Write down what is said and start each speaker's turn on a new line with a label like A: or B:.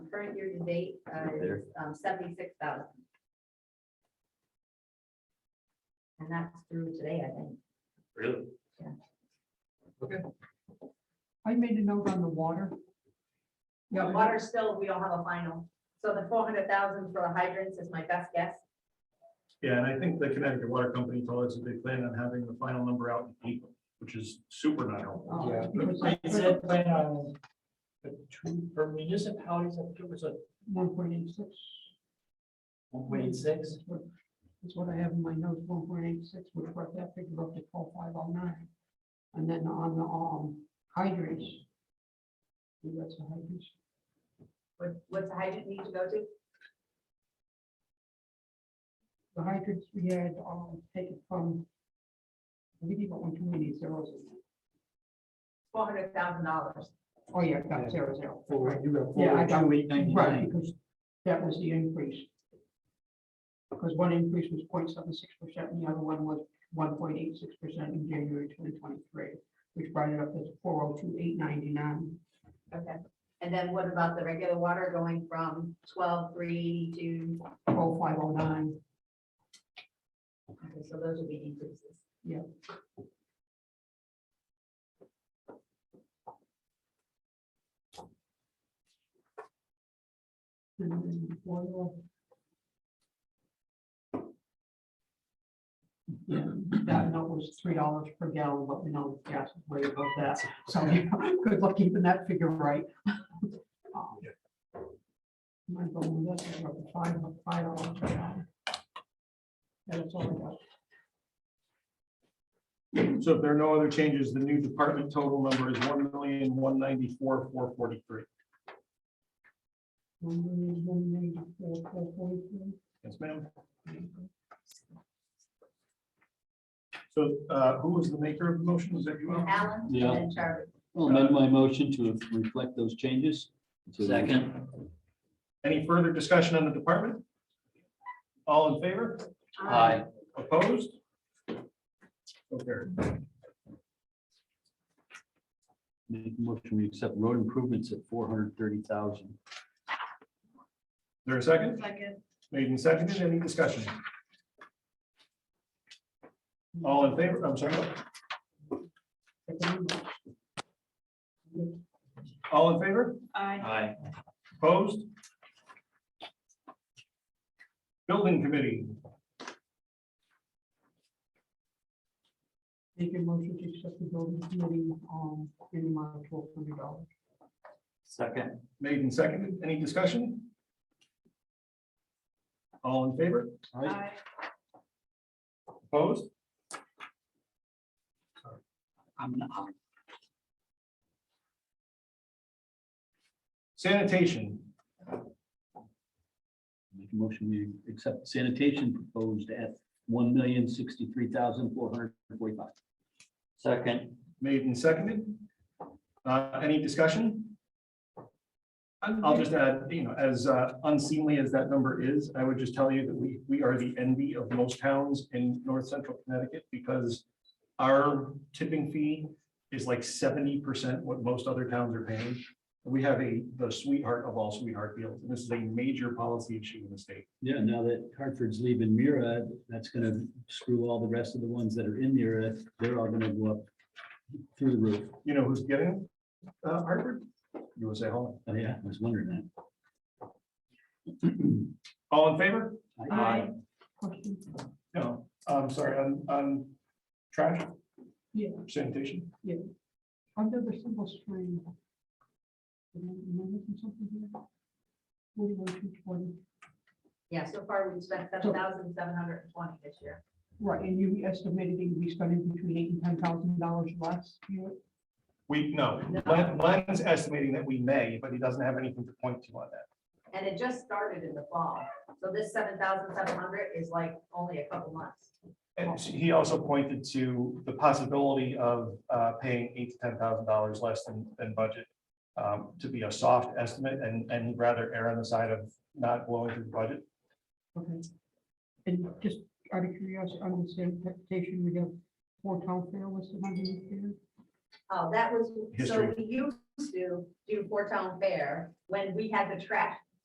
A: current year to date uh, is seventy-six thousand. And that's through today, I think.
B: Really?
C: I made a note on the water.
A: The
C: Yeah,
A: Water still, we don't have a final. So the four hundred thousand for the hydrants is my best guess.
B: Yeah, and I think the Connecticut Water Company told us that they plan on having the final number out in April, which is super not helpful.
A: Um,
C: Oh,
D: Yeah.
C: because I-
D: It said plan on uh, two, for municipalities, I think it was a
C: One point eight six.
D: one point six.
C: That's what- that's what I have in my notes, one point eight six, which brought that figure up to twelve five oh nine. And then on the, um, hydrants. See, That's the hydrants.
A: What, what's the hydrant need to go to?
C: The hydrants we had, um, take it from. We didn't want too many zeros. in there.
A: Four hundred thousand dollars.
C: Oh, yeah, got zero zero.
D: Four, you got
C: Yeah, I
D: four,
C: got-
D: two, eight,
C: Right,
D: ninety-nine.
C: because that was the increase. Because one increase was 0.76 percent and the other one was one point eight six percent in January twenty twenty-three, which brought it up to four oh two eight ninety-nine.
A: Okay. And then what about the regular water going from twelve-three to,
C: Oh five oh nine.
A: okay, so those would be increases.
C: and then oil. Yeah, that note was three dollars per gallon, but we know gas is way above that, so you know, good luck keeping that figure right. Um, Might go with that, we're up to five, five dollars per gallon. That's all I got.
B: So if there are no other changes, the new department total number is one million, one ninety-four, four forty-three.
C: One million, one ninety-four, four forty-three.
B: Yes, ma'am. So uh, who was the maker of the motion? Was that you? Al?
A: Alan?
E: Yeah.
A: And Charlie.
E: I'll amend my motion to reflect those changes. to the-
D: Second.
B: Any further discussion on the department? All in favor?
D: Aye.
B: Opposed? Okay.
E: Make a motion, we accept road improvements at four hundred thirty thousand.
B: There a second?
A: Second.
B: Made and seconded. Any discussion? All in favor? I'm sorry. All in favor?
A: Aye.
D: Aye.
B: Opposed? Building committee,
C: Make a motion to accept the building committee, um, in the amount of twelve hundred dollars.
D: Second.
B: made and seconded. Any discussion? All in favor?
A: Aye.
B: Opposed?
D: I'm not.
B: Sanitation,
E: Make a motion, we accept sanitation proposed at one million sixty-three thousand four hundred forty-five.
D: Second.
B: made and seconded. Uh, Any discussion? I'll just add, you know, as uh, unseemly as that number is, I would just tell you that we, we are the envy of most towns in north central Connecticut because our tipping fee is like seventy percent what most other towns are paying. We have a, the sweetheart of all sweetheart deals, and this is a major policy issue in the state.
E: Yeah, now that Hartford's leaving Mira, that's gonna screw all the rest of the ones that are in Mira. They're all gonna go up through the roof.
B: You know who's getting it? Uh, Harvard? USA Home.
E: Oh, yeah, I was wondering
B: All in favor?
E: that.
A: Aye.
C: Question?
B: No, I'm sorry, on, on trash
C: Yeah.
B: sanitation.
C: I've never simple string. Am I am I missing something here? Forty-one, two twenty,
A: Yeah, so far we've spent seven thousand seven hundred and twenty this year.
C: right, and you estimated it would be spending between eight and ten thousand dollars less, you know?
B: We, no, Len- Len's estimating that we may, but he doesn't have anything to point to on that.
A: And it just started in the fall. So this seven thousand seven hundred is like only a couple months.
B: And he also pointed to the possibility of uh, paying eight to ten thousand dollars less than, than budget um, to be a soft estimate, and, and he'd rather err on the side of not blowing through the budget.
C: Okay. And just out of curiosity, on the same presentation, we have four town fair listed on the here.
A: Oh, that was, so
B: History.
A: we used to do Four Town Fair when we had the trash